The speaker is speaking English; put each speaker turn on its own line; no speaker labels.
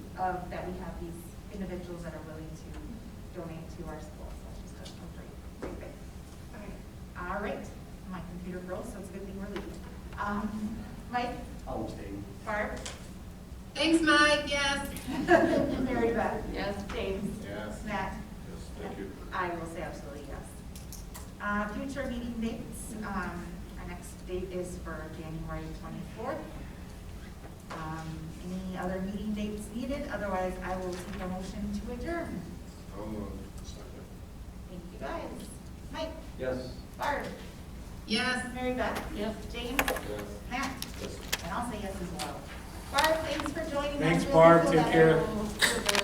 of, that we have these individuals that are willing to donate to our schools, that's just a great, great thing. All right, my computer froze, so it's a good thing we're leaving. Um, Mike,
I'll abstain.
Barb,
Thanks, Mike, yes.
Mary Beth.
Yes.
James.
Yes.
Matt.
Yes, thank you.
I will say absolutely yes. Uh, Future meeting dates, um, our next date is for January 24th. Um, Any other meeting dates needed, otherwise I will take a motion to adjourn.
I'll move. Second.
Thank you guys. Mike,
Yes.
Barb,
Yes.
Mary Beth. James,
Yes.
Matt,
Yes.
and I'll say yes as well. Barb, thanks for joining us.
Thanks,
Really
Barb.
cool
Take
that
care.
everyone was here.